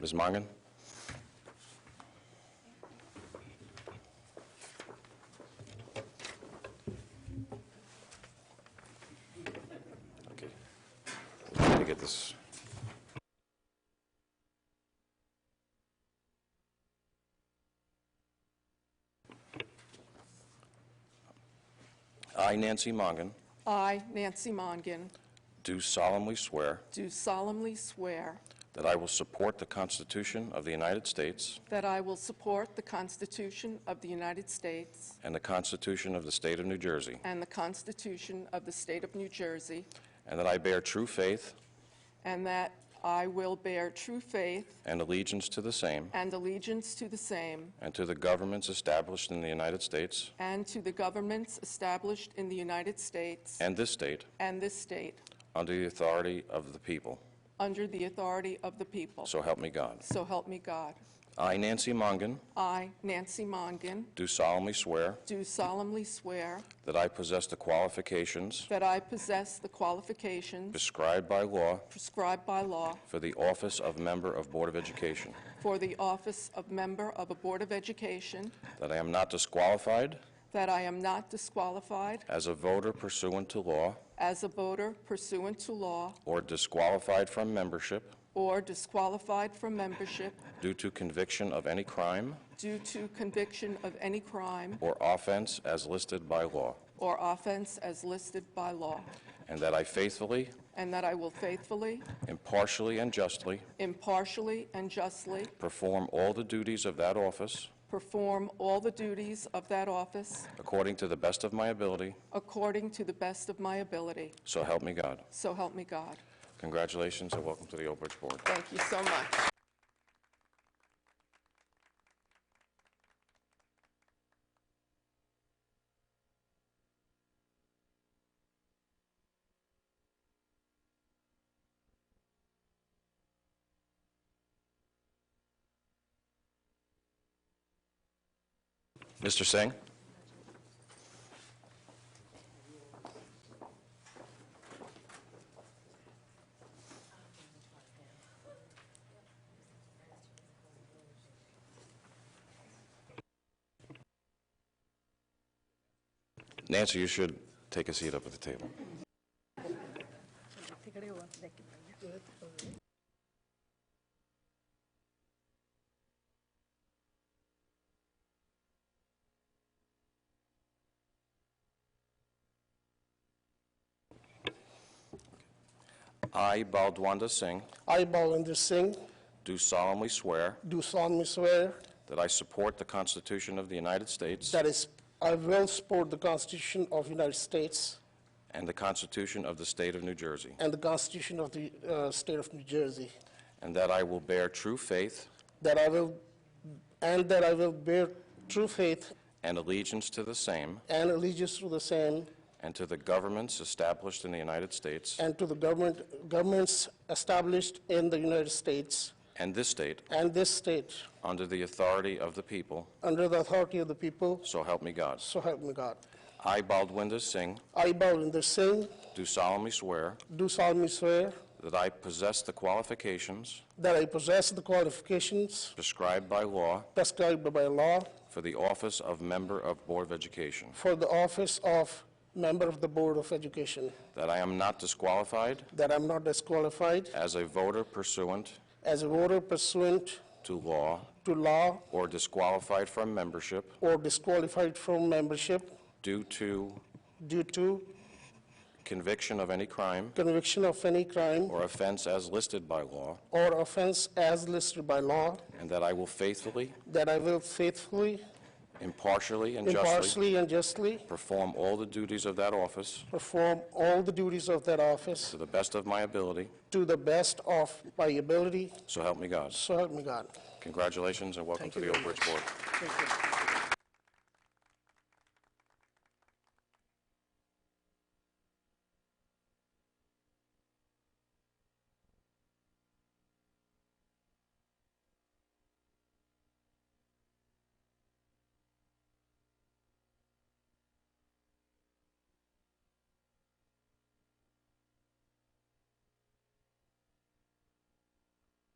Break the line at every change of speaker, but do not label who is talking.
Ms. Mongan? Okay. Let me get this. I, Nancy Mongan,
I, Nancy Mongan,
do solemnly swear
do solemnly swear
that I will support the Constitution of the United States
that I will support the Constitution of the United States
and the Constitution of the State of New Jersey,
and the Constitution of the State of New Jersey,
and that I bear true faith
and that I will bear true faith
and allegiance to the same
and allegiance to the same
and to the governments established in the United States
and to the governments established in the United States
and this state
and this state
under the authority of the people.
under the authority of the people.
So help me God.
So help me God.
I, Nancy Mongan,
I, Nancy Mongan,
do solemnly swear
do solemnly swear
that I possess the qualifications
that I possess the qualifications
prescribed by law
prescribed by law
for the office of Member of Board of Education,
For the office of member of a Board of Education,
that I am not disqualified
that I am not disqualified
as a voter pursuant to law
as a voter pursuant to law
or disqualified from membership
or disqualified from membership
due to conviction of any crime
due to conviction of any crime
or offense as listed by law,
or offense as listed by law,
and that I faithfully,
and that I will faithfully,
impartially, and justly
impartially, and justly
perform all the duties of that office
perform all the duties of that office
according to the best of my ability,
according to the best of my ability.
so help me God.
So help me God.
Congratulations and welcome to the Old Bridge Board.
Thank you so much.
Mr. Singh? Nancy, you should take a seat up at the table. I, Baldwanda Singh,
I, Balwinder Singh,
do solemnly swear
do solemnly swear
that I support the Constitution of the United States
that is, I will support the Constitution of the United States
and the Constitution of the State of New Jersey,
and the Constitution of the uh, State of New Jersey,
and that I will bear true faith
that I will, and that I will bear true faith
and allegiance to the same
and allegiance to the same
and to the governments established in the United States
and to the government, governments established in the United States
and this state
and this state
under the authority of the people,
under the authority of the people,
so help me God.
so help me God.
I, Baldwinda Singh,
I, Balwinder Singh,
do solemnly swear
do solemnly swear
that I possess the qualifications
that I possess the qualifications
prescribed by law
prescribed by law
for the office of Member of Board of Education,
for the office of Member of the Board of Education,
that I am not disqualified
that I'm not disqualified
as a voter pursuant
as a voter pursuant
to law
to law
or disqualified from membership
or disqualified from membership
due to
due to
conviction of any crime
conviction of any crime
or offense as listed by law,
or offense as listed by law,
and that I will faithfully,
that I will faithfully,
impartially, and justly
impartially, and justly
perform all the duties of that office
perform all the duties of that office
to the best of my ability,
to the best of my ability,
so help me God.
so help me God.
Congratulations and welcome
Thank
to
you
the Old
very
Bridge Board.
Thank you.